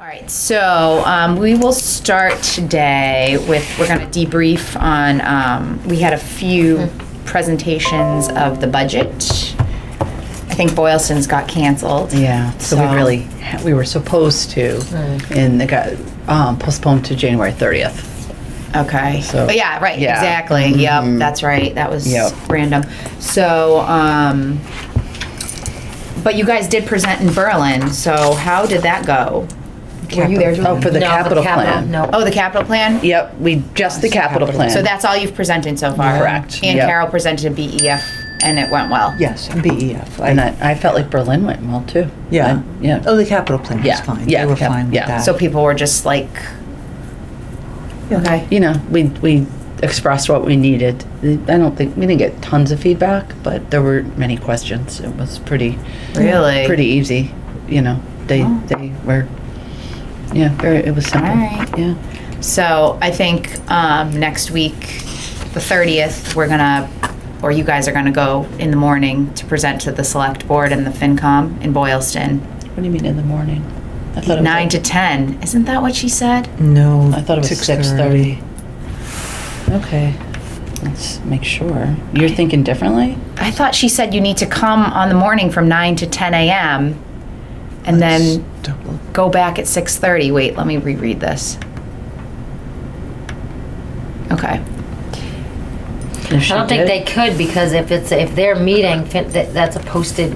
All right, so um, we will start today with, we're going to debrief on, um, we had a few presentations of the budget. I think Boylston's got canceled. Yeah, so we So- really, we were supposed to, and it got um, postponed to January 30th. Okay. So- Oh, yeah, right, Yeah. Mm-hmm. exactly. Yep, that's right. That was Yep. random. So, um, but you guys did present in Berlin, so how did that go? Were you there, Oh, Julie? for the No, capital capital, plan. No. Oh, the capital plan? Yep, we, just the capital plan. So that's all you've presented so far? Correct, And yep. Carol presented a BEF and it went well? Yes, and BEF. And I, I, I felt like Berlin went well, too. yeah. I- Yeah. Oh, the capital plan was Yeah, fine. yeah, They were cap- fine with yeah. that. So people were just like, Yeah. okay. You know, we, we expressed what we needed. I don't think, we didn't get tons of feedback, but there were many questions. It was pretty. Really? Oh. Pretty easy, you know, they, they were, yeah, very, it was simple. Alright. Yeah. So I think um, next week, the 30th, we're gonna, or you guys are gonna go in the morning to present to the select board and the FinCom in Boylston, What do you mean in the morning? I thought it was nine at- to 10. Isn't that what she said? No. I thought it was six thirty. Okay, let's make sure. You're thinking differently? I thought she said you need to come on the morning from nine to 10 a.m. and then Double. go back at 6:30. Wait, let me reread this. Okay. I I don't think they could because if it's, if they're meeting, fin- that- that's a posted,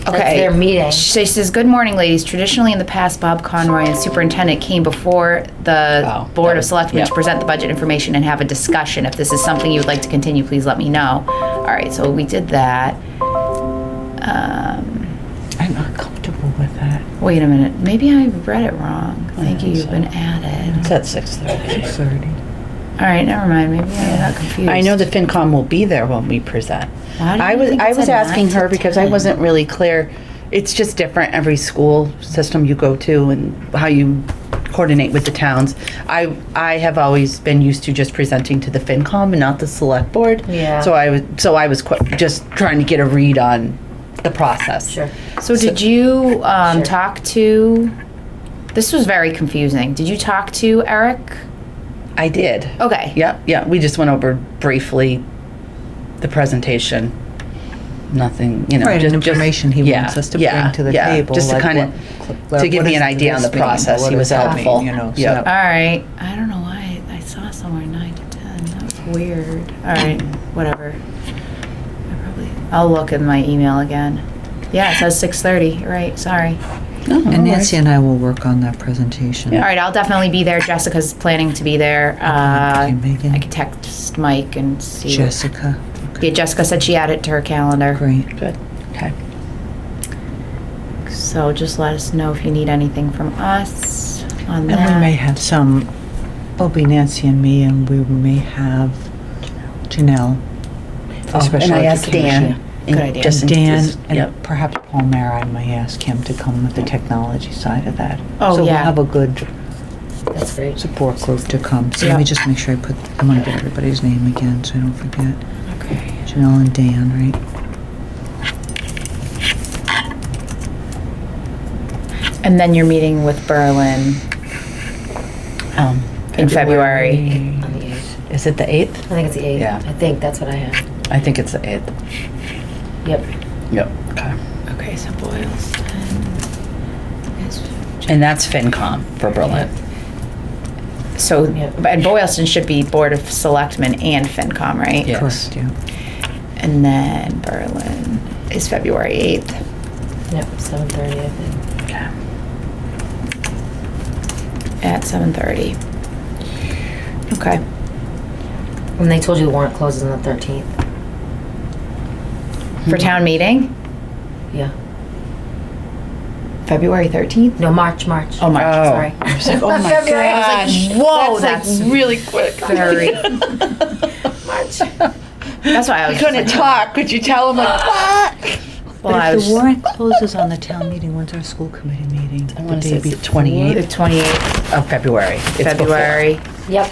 that's Okay. their meeting. She says, "Good morning, ladies. Traditionally, in the past, Bob Conroy and superintendent came before the Oh, board that- of selectmen to yeah. present the budget information and have a discussion. If this is something you would like to continue, please let me know." All right, so we did that. Um, I'm not comfortable with that. wait a minute. Maybe I read it wrong. Thank you. think You've so. been added. It's at six thirty. Six thirty. All right, never mind. Maybe I got confused. I know the FinCom will be there when we present. Why do I you was, think it I was said asking nine to her because I 10? wasn't really clear. It's just different every school system you go to and how you coordinate with the towns. I, I have always been used to just presenting to the FinCom and not the select board. Yeah. So I was, so I was qu- just trying to get a read on the process. Sure. So did you um, Sure. talk to? This was very confusing. Did you talk to Eric? I did. Okay. Yep, yeah, we just went over briefly the presentation. Nothing, you know, Right, just and just- information he yeah, wants us to yeah, bring to the yeah, table. Just to like kind what- of, like, to give what me is an idea on the this mean? process, What he does was that mean, helpful. You know, so Yep. All right. I don't know why I saw somewhere nine to ten. That was weird. All right. Whatever. I probably. I'll look in my email again. Yeah, it says six thirty. Right. Sorry. And Nancy and I will work on that presentation. All right. I'll definitely be there. Jessica's planning to be there. Uh, Okay, Megan. I could text Mike and see. Jessica, Yeah, Jessica said she added it to her calendar. great. Good, okay. So just let us know if you need anything from us on that. And we may have some, it'll be Nancy and me, and we may have Janelle. for Oh, special And I asked Dan. education. and Good idea. just in- Dan, just- Yep, and perhaps Paul Mayer, I may ask him to come with the technology side of that. Oh, So we'll yeah. have a good That's great. support group to come. So let me Yeah. just make sure I put, I want to get everybody's name again, so I don't forget. Okay. Janelle and Dan, right? And then you're meeting with Berlin um, in February. On the eighth. is it the I eighth? think it's the eighth. Yeah. I think that's what I have. I think it's the eighth. Yep. Yep. Okay. Okay, so Boylston. And that's FinCom for Berlin. So, Yeah. and Boylston should be Board of Selectmen and FinCom, right? Yeah. Yes. Correct, yeah. And then Berlin is February 8th. Yep. Seven thirty. I think. Okay. At 7:30. Okay. And they told you the warrant closes on the thirteenth. For town meeting, Yeah. February 13th? No, March. March. Oh, March, Oh. sorry. I was like, oh my I was gosh. like, whoa, that's really quick. very. That's why I was. just Couldn't like- talk. Could you tell him like Uh, what? Well, I But if was the warrant closes on the town meeting, when's our school committee meeting? I The wanna say day it's the before? 28th. the 28th Of February. It's before. February. Yep.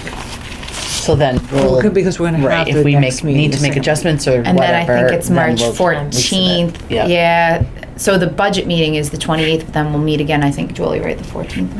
So then Well, we'll, it could because we're gonna have right, the if we next make, meeting. need to make adjustments or And then I whatever. think it's then March we'll- fourteenth. Yeah. Yeah, so the budget meeting is the twenty-eighth, but then we'll meet again, I think, Julie, right, the fourteenth?